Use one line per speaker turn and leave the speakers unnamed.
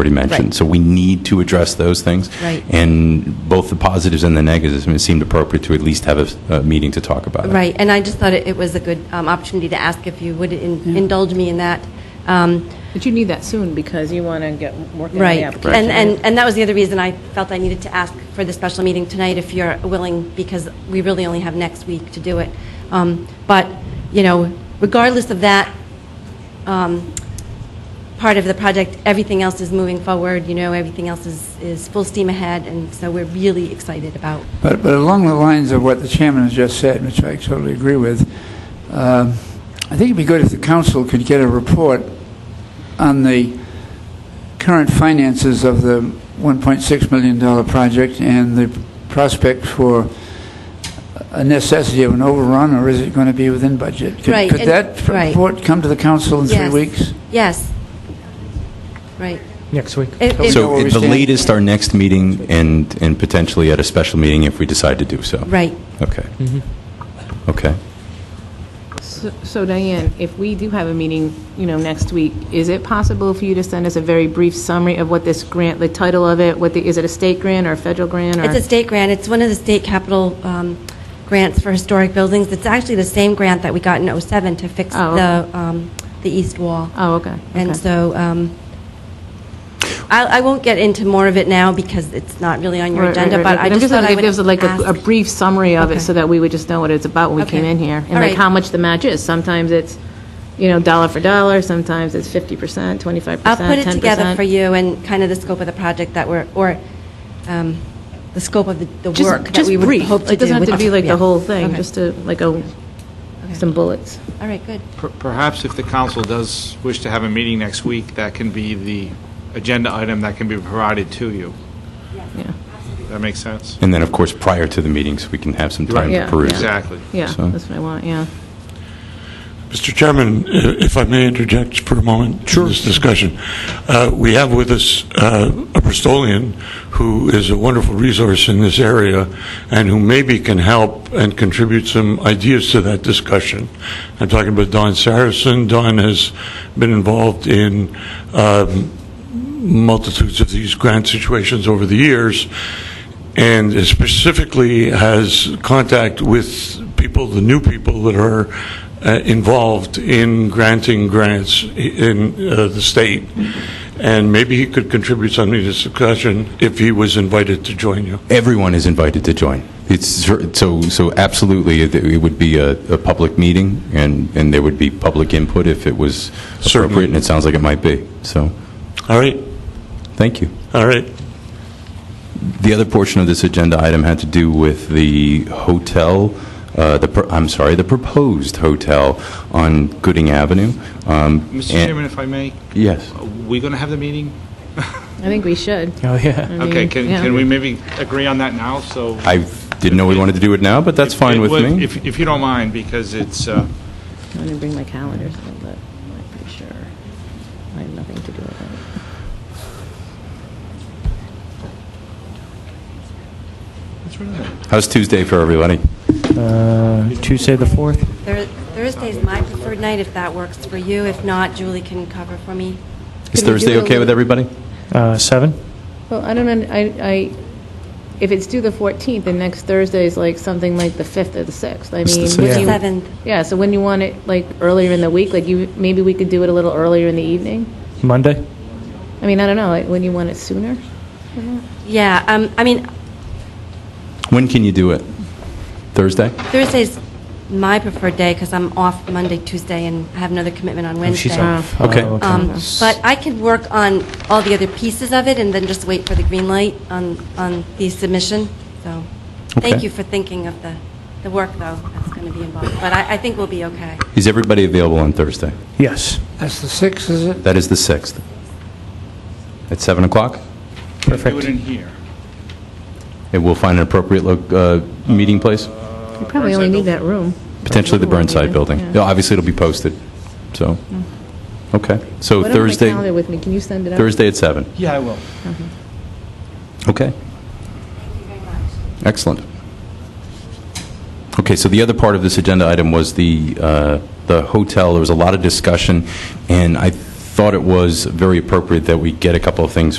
already mentioned.
Right.
So we need to address those things.
Right.
And both the positives and the negatives, I mean, it seemed appropriate to at least have a s- a, meeting to talk about it.
Right, and I just thought it it was a good um, opportunity to ask if you would in- indulge me in that. Um,
But you need that soon because you want to get working on the
Right,
application.
and, and, and that was the other reason I felt I needed to ask for the special meeting tonight, if you're willing, because we really only have next week to do it. Um, But, you know, regardless of that um, part of the project, everything else is moving forward, you know, everything else is, is full steam ahead, and so we're really excited about
But, but along the lines of what the chairman has just said, which I totally agree with, um, I think it'd be good if the council could get a report on the current finances of the $1.6 million project and the prospect for a necessity of an overrun, or is it going to be within budget? Could-
Right,
Could
and-
that
right.
report come to the council in three
Yes.
weeks?
Yes. Right.
next week.
It- it-
know
So
where we
at the
stand.
latest, our next meeting, and, and potentially at a special meeting if we decide to do so.
Right.
Okay.
Mm-hmm.
Okay.
So- So Diane, if we do have a meeting, you know, next week, is it possible for you to send us a very brief summary of what this grant, the title of it, what the, is it a state grant or a federal grant or?
It's a state grant. It's one of the state capital um, grants for historic buildings. It's actually the same grant that we got in '07 to fix
Oh,
the, um, the east wall.
Oh, okay,
And
okay.
so, um, I, I won't get into more of it now because it's not really on your
Right, right,
agenda,
right,
but
right.
I
I'm
just thought I
wondering
would
If there's like a- a
ask-
brief summary of
Okay.
it so that we would just know what it's about when we
Okay.
came in here.
All
And like
right.
how much the match is. Sometimes it's, you know, dollar for dollar, sometimes it's 50%, 25%, 10%.
I'll put it together for you and kind of the scope of the project that we're, or um, the scope of the the
Just-
work that
just
we would
brief.
hope to do.
It doesn't have
with-
to be like
Yeah.
the whole thing,
Okay.
just to, like a, some bullets.
All right, good.
Per- Perhaps if the council does wish to have a meeting next week, that can be the agenda item that can be provided to you.
Yeah.
That makes sense?
And then, of course, prior to the meetings, we can have some time
Right.
to
Yeah,
peruse. it.
Exactly.
Yeah,
So-
that's what I want, yeah.
Mr. Chairman, i- if I may interject for a moment? Sure. This discussion. Uh, We have with us uh, a Bristolian who is a wonderful resource in this area and who maybe can help and contribute some ideas to that discussion. I'm talking about Don Saracen. Don has been involved in um, multitudes of these grant situations over the years, and specifically has contact with people, the new people that are uh, involved in granting grants i- in uh, the state. And maybe he could contribute something to this discussion if he was invited to join you.
Everyone is invited to join. It's, so, so absolutely, it- it would be a, a public meeting, and, and there would be public input if it was appropriate,
Certainly.
and it sounds like it might be. So,
All right,
thank you.
all right.
The other portion of this agenda item had to do with the hotel, uh, the, pro- I'm sorry, the proposed hotel on Gooding Avenue. Um,
Mr.
and-
Chairman, if I may,
Yes.
are we going to have the meeting?
I think we should.
Oh, yeah.
Okay, can,
yeah.
can we maybe agree on that now, so?
I didn't know we wanted to do it now, but that's
It
fine with
would-
me.
If, if you don't mind, because it's, uh,
I didn't bring my calendar, so but I'm pretty sure I have nothing to do with it.
How's Tuesday for everybody?
Mm.
Uh, Tuesday, the 4th?
Thur- Thursday's my preferred night, if that works for you. If not, Julie can cover for me.
Is
Can we
Thursday
do a
okay with
little-
everybody?
Uh, 7?
Well, I don't, un- I, I, if it's due the 14th, then next Thursday is like something like the 5th or the 6th. I
It's the
mean,
sixth.
when
Yeah.
you-
Seventh.
Yeah, so when you want it, like, earlier in the week, like, you, maybe we could do it a little earlier in the evening?
Monday?
I mean, I don't know, like, when you want it sooner?
Yeah, um, I mean,
When can you do it? Thursday?
Thursday's my preferred day because I'm off Monday, Tuesday, and I have another commitment on
Oh, She's
Wednesday.
off.
Okay.
Oh,
Um, But I could work on all the other pieces of it and then just wait for the green light on, on the submission. So, thank
Okay.
you for thinking of the, the work, though, that's going to be involved. But I, I think we'll be okay.
Is everybody available on Thursday?
Yes.
That's the 6th, is it?
That is the 6th. At 7 o'clock?
do it
Perfect.
in here.
And we'll find an appropriate lo- uh, meeting place,
You probably only need that room.
potentially the Burnside Building.
Yeah.
Obviously, it'll be posted, so, okay. So
What about my
Thursday,
calendar with me? Can you send it out?
Thursday at 7?
Yeah, I will.
Okay. Excellent. Okay, so the other part of this agenda item was the, uh, the hotel. There was a lot of discussion, and I thought it was very appropriate that we get a couple of things